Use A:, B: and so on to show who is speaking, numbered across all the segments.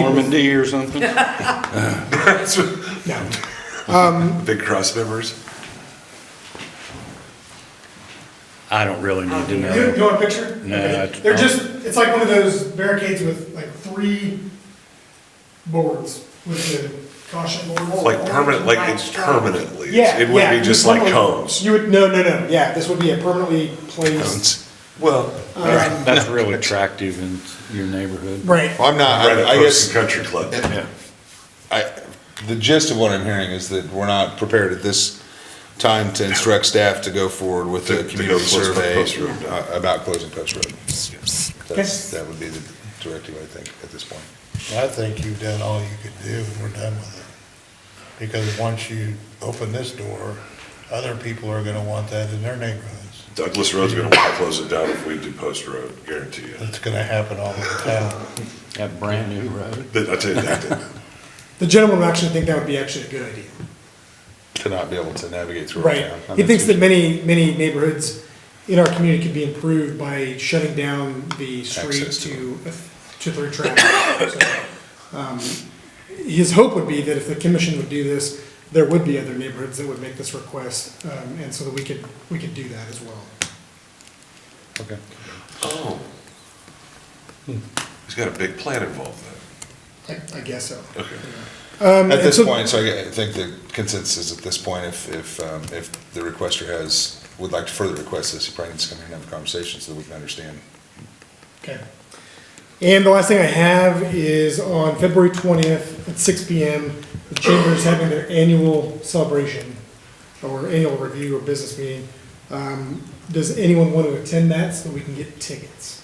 A: Normandy or something?
B: That's what- Big cross members.
A: I don't really need to
C: You,
A: know.
C: you want a picture?
A: No,
C: Okay.
A: I-
C: They're just, it's like one of those barricades with like three boards with the caution boards.
B: Like permanent, like it's permanently.
C: Yeah,
B: It would
C: yeah,
B: be
C: you
B: just
C: would
B: like
C: permanently-
B: cones.
C: You would, no, no, no, yeah, this would be a permanently placed,
B: Cones. Well,
A: That's that's real attractive in your neighborhood.
C: right,
D: Well, I'm not,
B: right
D: I I
B: across the
D: guess,
B: country club.
D: I, the gist of what I'm hearing is that we're not prepared at this time to instruct staff to go forward with
B: To-
D: a
B: to go
D: community
B: close
D: survey
B: Post Road.
D: uh, about closing Post Road. That's, that would be the directive, I think, at this point.
E: I think you've done all you could do, and we're done with it. Because once you open this door, other people are gonna want that in their neighborhoods.
B: Douglas Road's gonna wanna close it down if we do Post Road, guarantee you.
E: It's gonna happen all over town.
A: That brand new road.
B: But I tell you that,
C: the gentleman would actually think that would be actually a good idea,
D: To not be able to navigate through our
C: right?
D: town.
C: He thinks that many, many neighborhoods in our community could be improved by shutting down the street
D: Access to
C: to, to through traffic. So, um, His hope would be that if the commission would do this, there would be other neighborhoods that would make this request, um, and so that we could, we could do that as well.
D: Okay.
B: oh. Hmm. He's got a big plan involved then.
C: I, I guess so.
B: Okay.
C: Um,
D: At
C: and
D: this
C: so-
D: point, so I get- I think the consensus is at this point, if, if, um, if the requester has, would like to further request this, he probably needs to come here and have a conversation so that we can understand.
C: Okay. And the last thing I have is on February twentieth at six P M, the chamber is having their annual celebration or annual review or business meeting. Um, does anyone want to attend that so that we can get tickets?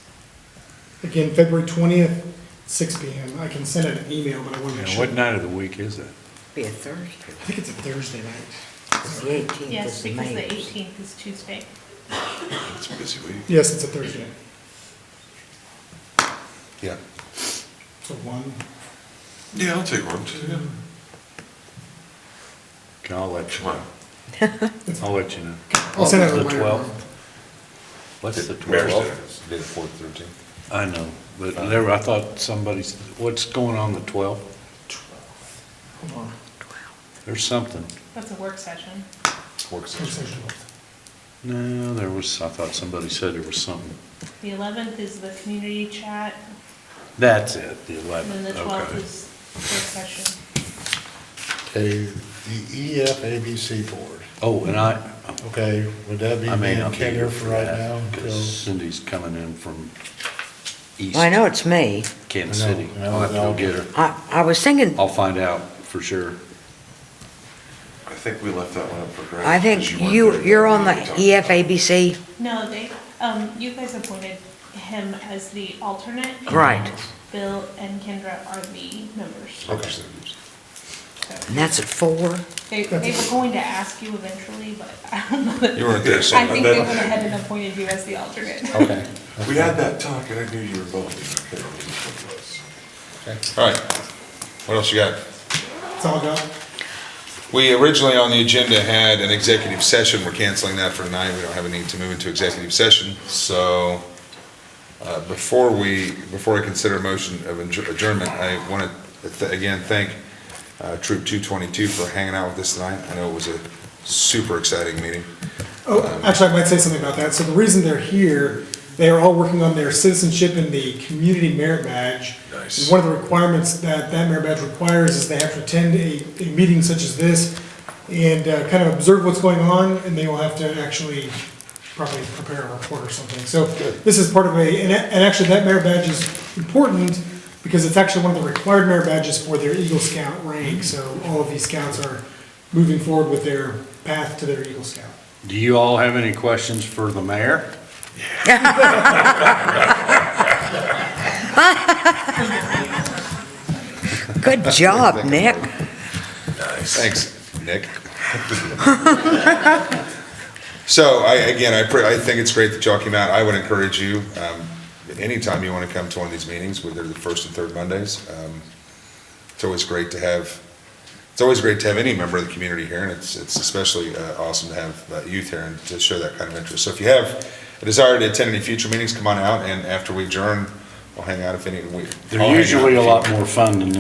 C: Again, February twentieth, six P M. I can send out an email, but I want to make
A: Yeah,
C: sure.
A: What night of the week is it?
F: Be a Thursday.
C: I think it's a Thursday night.
F: It's the eighteenth
G: Yes,
F: of
G: because the
F: May.
G: 18th is Tuesday.
B: It's a busy week.
C: Yes, it's a Thursday.
D: Yeah.
C: So one.
B: Yeah, I'll take one. too, yeah.
A: Okay, I'll let you
B: Come
A: know.
B: on.
A: I'll let you know.
C: I'll send out a
A: The
C: reminder.
A: 12th? What's the
B: Mayor's Day.
A: twelfth?
D: Day the fourth, thirteenth.
A: I know, but there, I thought somebody's, what's going on the twelfth?
C: Hold on.
A: There's something.
G: That's a work session.
D: Work
C: It's
D: session.
C: Thursday.
A: No, there was, I thought somebody said there was something.
G: The 11th is the community chat,
A: That's it, the
G: and then
A: eleventh,
G: the 12th
A: okay.
G: is work session.
E: Okay, the EFABC board,
A: Oh, and I,
E: okay, would that be
A: I may
E: me and
A: not be
E: Kinger
A: here
E: for
A: for
E: right now?
A: that,
E: until-
A: because Cindy's coming in from East
F: Well, I know it's May.
A: Kansas
E: I know,
A: City.
E: I know,
A: I'll have to
E: I'll-
A: go get her.
F: I, I was thinking,
A: I'll find out for sure.
B: I think we left that one up for grabs.
F: I think you, you're on the E EFABC.
G: No, they, um, you guys appointed him as the alternate.
F: Right.
G: Bill and Kendra are the members.
B: Okay.
G: So
F: And that's at four?
G: They, they were going to ask you eventually, but I don't know that.
D: You weren't there, so-
G: I think they went ahead and appointed you as the alternate.
A: Okay.
B: We had that talk and I knew you were involved. I can't remember what it was.
D: All right. What else you got?
C: It's all gone.
D: We originally on the agenda had an executive session. We're canceling that for tonight. We don't have a need to move into executive session. So uh, before we, before I consider a motion of adjour- adjournment, I want to again thank uh, Troop 222 for hanging out with us tonight. I know it was a super exciting meeting.
C: Oh, actually, I might say something about that. So the reason they're here, they are all working on their citizenship in the community merit badge.
B: Nice.
C: One of the requirements that that merit badge requires is they have to attend a, a meeting such as this and uh, kind of observe what's going on, and they will have to actually probably prepare a report or something. So this is part of a, and a- and actually, that merit badge is important because it's actually one of the required merit badges for their Eagle Scout rank. So all of these scouts are moving forward with their path to their Eagle Scout.
A: Do you all have any questions for the mayor?
F: Good job, Nick.
D: Thanks, Nick. So I, again, I, pre- I think it's great that y'all came out. I would encourage you, um, anytime you want to come to one of these meetings, whether they're the first and third Mondays. um, It's always great to have, it's always great to have any member of the community here, and it's, it's especially uh, awesome to have uh, youth here and to show that kind of interest. So if you have a desire to attend any future meetings, come on out, and after we adjourn, I'll hang out if any, we. I'll hang
A: They're
D: out
A: usually a
D: if you-
A: lot more fun than this